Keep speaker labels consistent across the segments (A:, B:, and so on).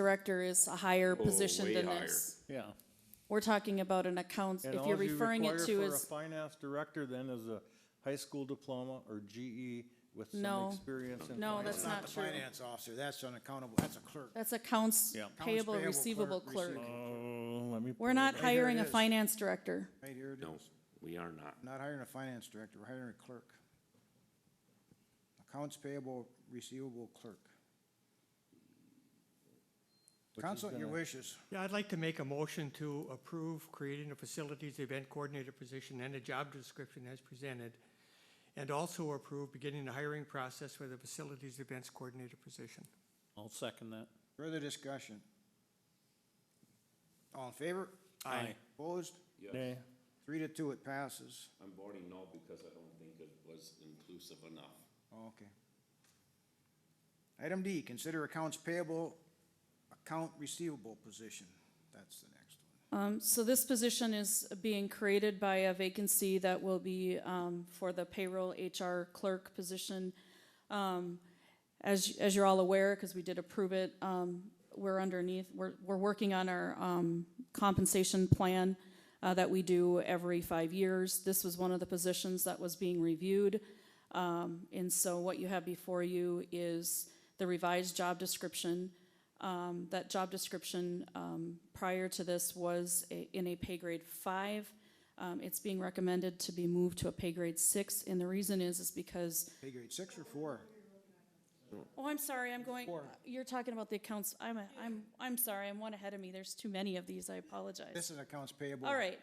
A: director is a higher position
B: Oh, way
A: than
B: higher.
A: this.
C: Yeah.
A: We're talking about an accounts,
C: And
A: if you're
C: all you
A: referring it
C: require
A: to
C: for a
A: is,
C: Finance director then is a high school diploma or GE with
A: No.
C: some experience in.
A: no,
C: finance.
A: that's not
D: the
A: true.
D: finance officer, that's an accountable, that's a clerk.
A: That's accounts
C: Yeah.
A: payable,
D: payable,
A: receivable
D: clerk,
A: clerk.
D: receivable.
C: Oh, let me.
A: We're
C: pull
A: not
C: it up.
A: hiring a
D: it is.
A: finance director.
D: Right here it
B: No,
D: is.
B: we are not.
D: Not hiring a finance director, we're hiring a clerk. Accounts payable, receivable clerk. Counsel, your wishes.
E: Yeah, I'd like to make a motion to approve creating a facilities event coordinator position and a job description as presented. And also approve beginning the hiring process for the facilities events coordinator position.
C: I'll second that.
D: Further discussion? All in favor?
C: Aye.
D: Opposed?
C: Nay.
D: Three to two, it passes.
B: I'm voting no because I don't think it was inclusive enough.
D: Okay. Item D, consider accounts payable, account receivable position. That's the next one.
A: Um, so this position is being created by a vacancy that will be, um, for the payroll HR clerk position. Um, as, as you're all aware, because we did approve it, um, we're underneath, we're, we're working on our, um, compensation plan, uh, that we do every five years. This was one of the positions that was being reviewed. Um, and so what you have before you is the revised job description. Um, that job description, um, prior to this was a, in a pay grade five. Um, it's being recommended to be moved to a pay grade six, and the reason is, is because
D: Pay grade six or four?
A: Oh, I'm sorry, I'm going, you're talking about the accounts, I'm, a- I'm, I'm sorry, I'm one ahead of me, there's too many of these, I apologize.
D: This is accounts payable.
A: All right,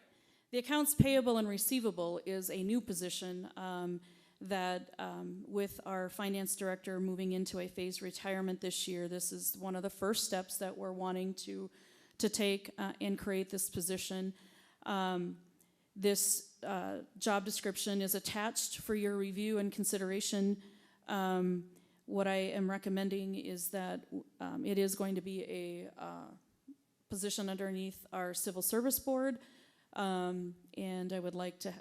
A: the accounts payable and receivable is a new position, um, that, um, with our finance director moving into a phased retirement this year, this is one of the first steps that we're wanting to, to take, uh, and create this position. Um, this, uh, job description is attached for your review and consideration. Um, what I am recommending is that, um, it is going to be a, uh, position underneath our civil service board. Um, and I would like to,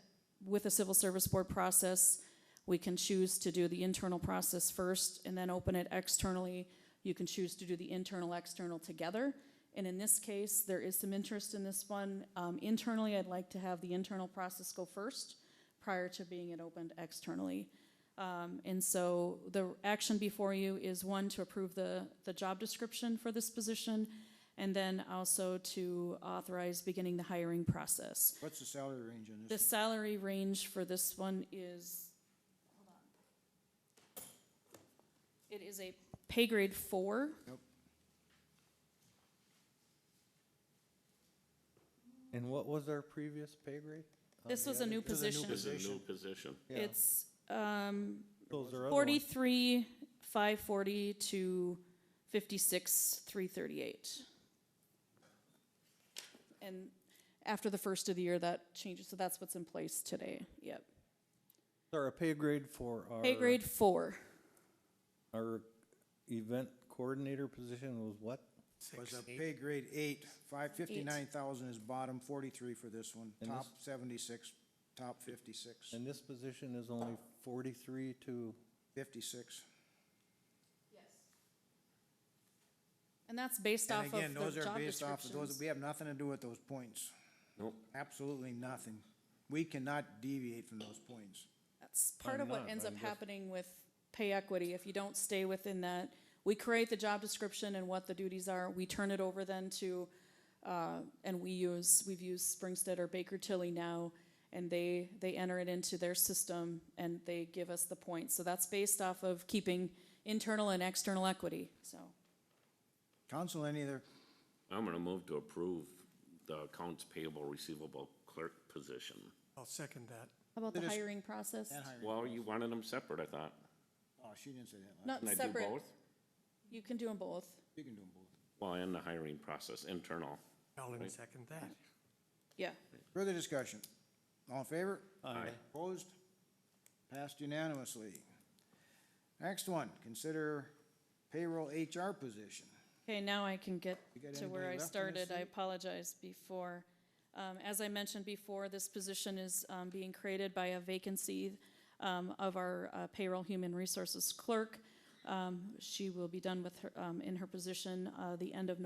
A: with a civil service board process, we can choose to do the internal process first and then open it externally. You can choose to do the internal, external together. And in this case, there is some interest in this one. Um, internally, I'd like to have the internal process go first prior to being it opened externally. Um, and so the action before you is one, to approve the, the job description for this position, and then also to authorize beginning the hiring process.
D: What's the salary range on
A: The
D: this?
A: salary range for this one is, hold on. It is a pay grade four.
C: And what was our previous pay grade?
A: This was a new position.
B: It's a new position.
A: It's, um,
C: Those are other ones.
A: forty-three, five forty to fifty-six, three thirty-eight. And after the first of the year, that changes, so that's what's in place today, yep.
C: Or a pay grade for our.
A: Pay grade four,
C: Our event coordinator position was what?
D: Was a pay grade eight, five fifty-nine thousand is bottom, forty-three for this one,
C: And
D: top seventy-six, top fifty-six,
C: And this position is only forty-three to,
D: fifty-six.
A: and that's based off
D: And
A: of the
D: again,
A: job
D: those are based off of those,
A: descriptions.
D: we have nothing to do with those points,
B: Nope.
D: absolutely nothing. We cannot deviate from those points.
A: That's part
C: I'm
A: of what
C: not,
A: ends
C: I'm
A: up
C: just-
A: happening with pay equity, if you don't stay within that. We create the job description and what the duties are, we turn it over then to, uh, and we use, we've used Springstead or Baker Tilly now, and they, they enter it into their system and they give us the points. So that's based off of keeping internal and external equity, so.
D: Counsel, any other,
B: I'm gonna move to approve the accounts payable receivable clerk position.
E: I'll second that.
A: How about the
D: It is-
A: hiring process?
D: and hiring.
B: Well, you wanted them separate, I thought.
D: oh, she didn't say that, last.
A: Not
B: Can I do
A: separate,
B: both?
A: you can do them both.
D: you can do them both.
B: Well, and the hiring process, internal.
E: Alan, second that.
A: Yeah,
D: Further discussion, all in favor?
B: Aye.
D: Opposed? Passed unanimously. Next one, consider payroll HR position.
A: okay, now I can get
D: You got
A: to where I
D: anybody left in this
A: started, I
D: seat?
A: apologize before. Um, as I mentioned before, this position is, um, being created by a vacancy, um, of our uh, payroll human resources clerk. Um, she will be done with her, um, in her position, uh, the end of